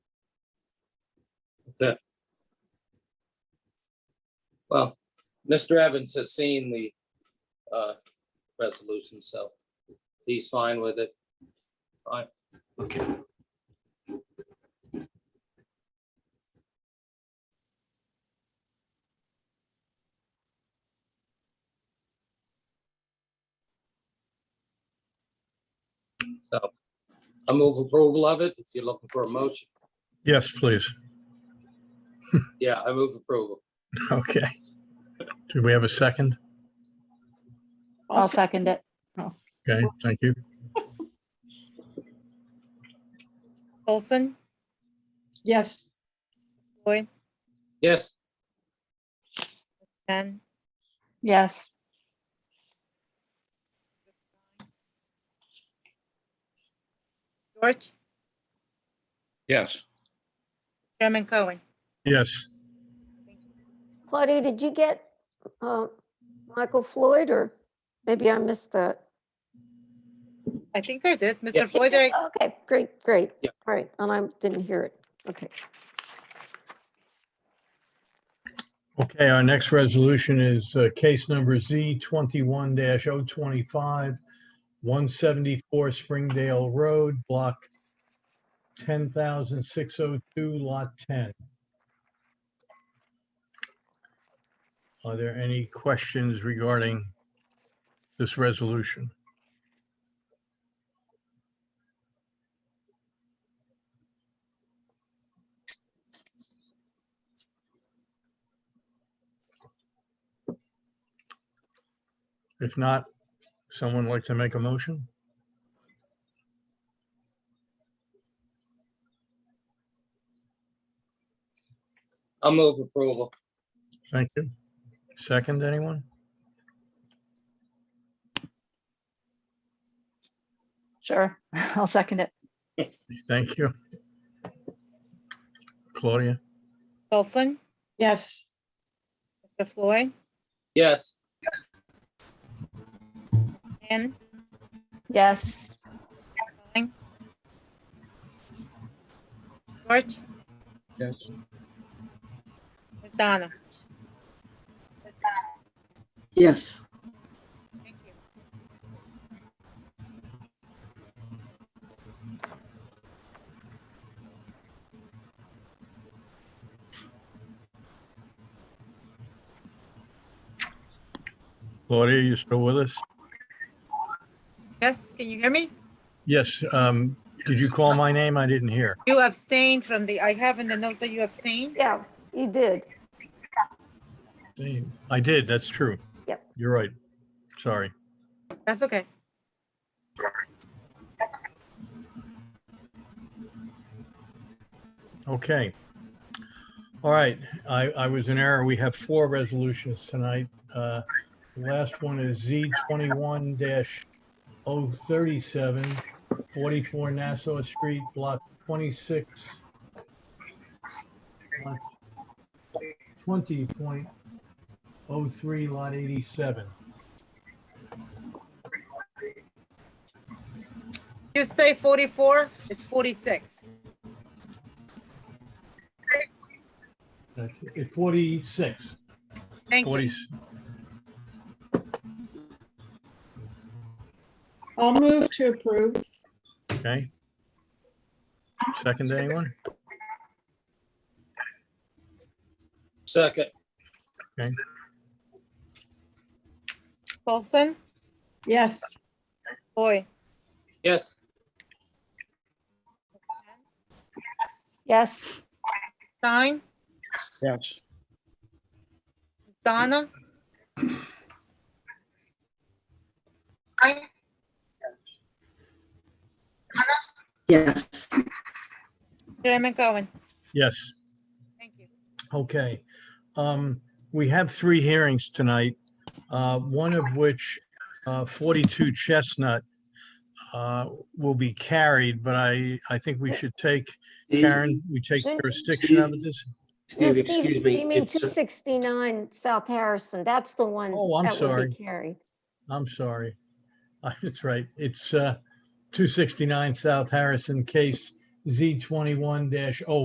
Yeah. Well, Mr. Evans has seen the uh, resolution, so he's fine with it. Okay. I move approval of it if you're looking for a motion. Yes, please. Yeah, I move approval. Okay. Do we have a second? I'll second it. Okay, thank you. Olson, Yes. Boyd, Yes, Ben, Yes. George, Yes. Chairman Cohen. Yes, Claudia, did you get uh, Michael Floyd or maybe I missed that? I think I did. Yeah. Mr. Floyd, I- Okay, great, great. Yeah. All right, and I didn't hear it. Okay. okay, our next resolution is uh, case number Z twenty-one 25 one seventy-four Springdale Road, block ten thousand six oh two, lot ten. Are there any questions regarding this resolution? If not, someone like to make a motion? I move approval. Thank you. Second, anyone? Sure. I'll second it. Thank you. Claudia? Olson, Yes. Mr. Floyd, Yes, Ben, Yes. Cohen. George, Yes. Ms. Donna. Yes, Thank you. Claudia, you still with us? Yes, can you hear me? Yes, um, did you call my name? I didn't hear. You abstained from the, I have in the notes that you abstained. Yeah, you did. I did, that's true. Yep. You're right. Sorry. That's okay. Okay. All right, I, I was in error. We have four resolutions tonight. Uh, The last one is Z twenty-one 37 44 Nassau Street, block twenty-six. Twenty point oh three, lot eighty-seven. You say 44, it's 46. That's it, forty-six. Thank you. 46. I'll move to approve. Okay. Second, anyone? second, Olson, Yes, Boyd, yes, Yes. Stein, Yes. Donna. yes, Chairman Cohen. Yes. Thank you. Okay. Um, We have three hearings tonight, uh, one of which, uh, 42 Chestnut, uh, will be carried, but I, I think we should take, Karen, we take Shouldn't- jurisdiction of this. No, Steve, Steve, excuse me. you mean it's, uh, 269 South Harrison? That's the one. Oh, I'm that would be sorry. Carried. I'm sorry. That's right. It's uh, 269 South Harrison, case Z21-0.